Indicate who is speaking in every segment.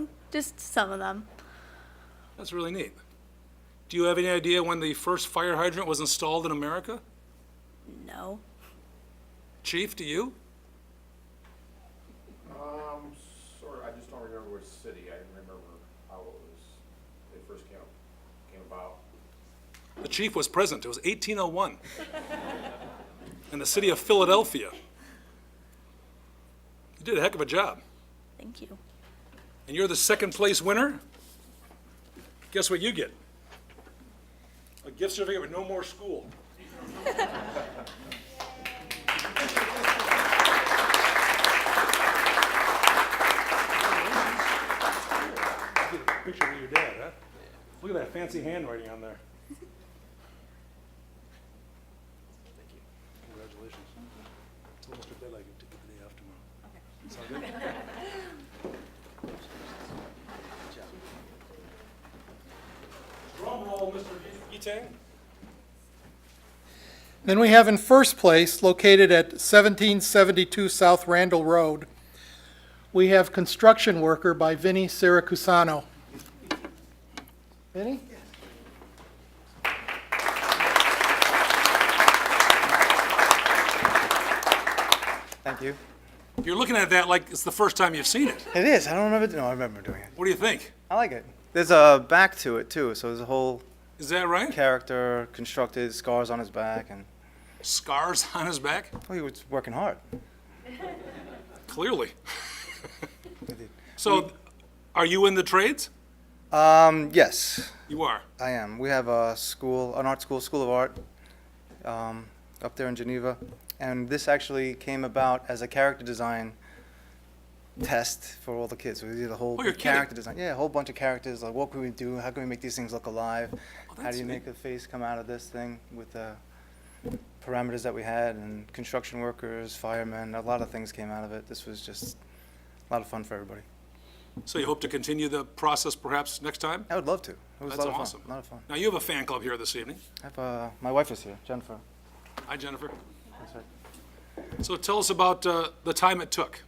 Speaker 1: just some of them.
Speaker 2: That's really neat. Do you have any idea when the first fire hydrant was installed in America?
Speaker 1: No.
Speaker 2: Chief, do you?
Speaker 3: Um, sort I just don't remember which city, I remember how it was, they first came, came about.
Speaker 2: The chief was present. It was 1801 in the city of Philadelphia. You did a heck of a job.
Speaker 1: Thank you.
Speaker 2: And you're the second place winner? Guess what you get? A gift certificate with no more school. Picture of your dad, huh? Look at that fancy handwriting on there. Congratulations. It's almost a deadline to get the day off tomorrow. Drum roll, Mr. Etang.
Speaker 4: Then we have in first place, located at 1772 South Randall Road, we have Construction Worker by Vinnie Siracusano. Vinnie?
Speaker 5: Thank you.
Speaker 2: You're looking at that like it's the first time you've seen it.
Speaker 5: It is. I don't remember. No, I remember doing it.
Speaker 2: What do you think?
Speaker 5: I like it. There's a back to it too, so there's a whole
Speaker 2: Is that right?
Speaker 5: character constructed, scars on his back, and
Speaker 2: Scars on his back?
Speaker 5: oh, he was working hard.
Speaker 2: Clearly. So, are you in the trades?
Speaker 5: Um, yes,
Speaker 2: You are.
Speaker 5: I am. We have a school, an art school, School of Art, um, up there in Geneva, and this actually came about as a character design test for all the kids. We did a whole
Speaker 2: Oh, you're
Speaker 5: big character
Speaker 2: kidding.
Speaker 5: design. Yeah, a whole bunch of characters. Like, what can we do? How can we make these things look alive? How
Speaker 2: Oh, that's
Speaker 5: do you
Speaker 2: neat.
Speaker 5: make a face come out of this thing with the parameters that we had and construction workers, firemen? A lot of things came out of it. This was just a lot of fun for everybody.
Speaker 2: So you hope to continue the process perhaps next time?
Speaker 5: I would love to. It was
Speaker 2: That's
Speaker 5: a lot of
Speaker 2: awesome.
Speaker 5: fun. A lot of fun.
Speaker 2: Now, you have a fan club here this evening.
Speaker 5: I have, uh, my wife is here, Jennifer.
Speaker 2: Hi, Jennifer.
Speaker 5: That's right.
Speaker 2: So tell us about uh, the time it took.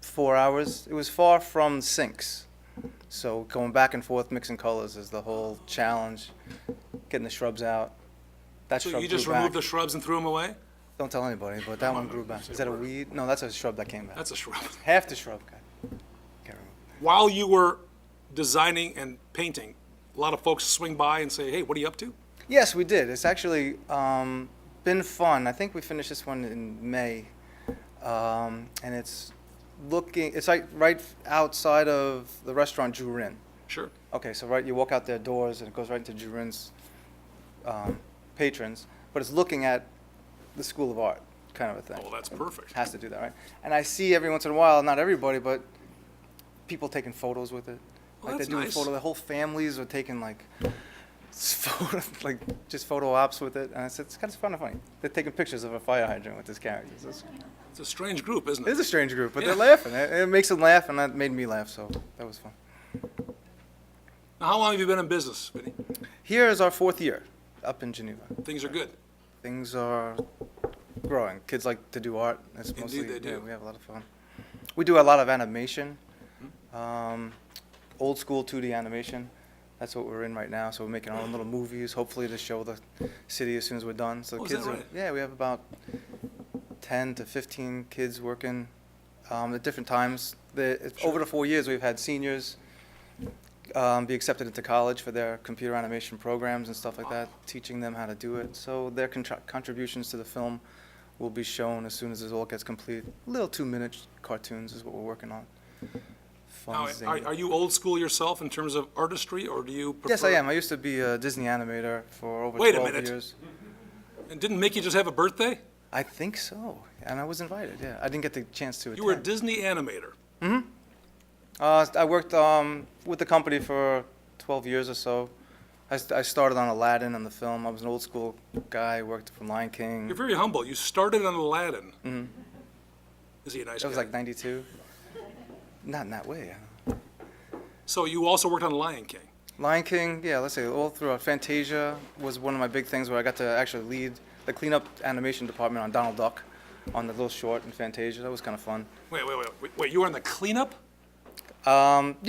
Speaker 5: four hours. It was far from sinks. So going back and forth mixing colors is the whole challenge. Getting the shrubs out. That
Speaker 2: So
Speaker 5: shrub
Speaker 2: you just
Speaker 5: grew back.
Speaker 2: removed the shrubs and threw them away?
Speaker 5: Don't tell anybody, but that one grew back. Is that a weed? No, that's a shrub that came back.
Speaker 2: That's a shrub.
Speaker 5: Half the shrub got. Can't remember.
Speaker 2: While you were designing and painting, a lot of folks swing by and say, hey, what are you up to?
Speaker 5: Yes, we did. It's actually um, been fun. I think we finished this one in May, um, and it's looking. It's like right outside of the restaurant Jurin.
Speaker 2: Sure.
Speaker 5: Okay, so right, you walk out their doors and it goes right into Jurin's um, patrons, but it's looking at the School of Art, kind of a thing.
Speaker 2: Well, that's perfect.
Speaker 5: Has to do that, right? And I see every once in a while, not everybody, but people taking photos with it.
Speaker 2: Well,
Speaker 5: like
Speaker 2: that's
Speaker 5: they're doing
Speaker 2: nice.
Speaker 5: photo, the whole families are taking like, s- photo, like just photo ops with it. And I said, it's kind of fun and funny. They're taking pictures of a fire hydrant with this character. So It's,
Speaker 2: It's a strange group, isn't
Speaker 5: it is
Speaker 2: it?
Speaker 5: a strange group, but
Speaker 2: Yeah.
Speaker 5: they're laughing. It, it makes them laugh, and that made me laugh, so that was fun.
Speaker 2: Now, how long have you been in business, Vinny?
Speaker 5: Here is our fourth year up in Geneva.
Speaker 2: Things are good.
Speaker 5: things are growing. Kids like to do art. That's
Speaker 2: Indeed
Speaker 5: mostly
Speaker 2: they
Speaker 5: yeah,
Speaker 2: do.
Speaker 5: we have a lot of fun. We do a lot of animation,
Speaker 2: Hmm?
Speaker 5: um, old school 2D animation. That's what we're in right now. So we're making our own little movies. Hopefully to show the city as soon as we're done. So the
Speaker 2: Oh, is that
Speaker 5: kids are
Speaker 2: right?
Speaker 5: yeah. We have about 10 to 15 kids working um, at different times. The, it's- Over the four years, we've had seniors um, be accepted into college for their computer animation programs and stuff like that, teaching them how to do it. So their contra- contributions to the film will be shown as soon as this all gets complete. Little two-minute cartoons is what we're working on. Fun,
Speaker 2: Now,
Speaker 5: zany.
Speaker 2: are, are you old school yourself in terms of artistry, or do you prefer?
Speaker 5: yes, I am. I used to be a Disney animator for over
Speaker 2: Wait a
Speaker 5: 12
Speaker 2: minute.
Speaker 5: years.
Speaker 2: And didn't Mickey just have a birthday?
Speaker 5: I think so, and I was invited. Yeah, I didn't get the chance to attend.
Speaker 2: You were a Disney animator.
Speaker 5: Uh, I worked um, with the company for 12 years or so. I, st- I started on Aladdin on the film. I was an old school guy. Worked from Lion King.
Speaker 2: You're very humble. You started on Aladdin. Is he a nice
Speaker 5: That Mm-hmm. was
Speaker 2: guy?
Speaker 5: like 92. Not in that way.
Speaker 2: so you also worked on Lion King.
Speaker 5: Lion King, yeah, let's say all throughout. Fantasia was one of my big things where I got to actually lead the cleanup animation department on Donald Duck on the little short in Fantasia. That was kind of fun.
Speaker 2: Wait, wait, wait, wait. Wait, you were on the cleanup?
Speaker 5: Um,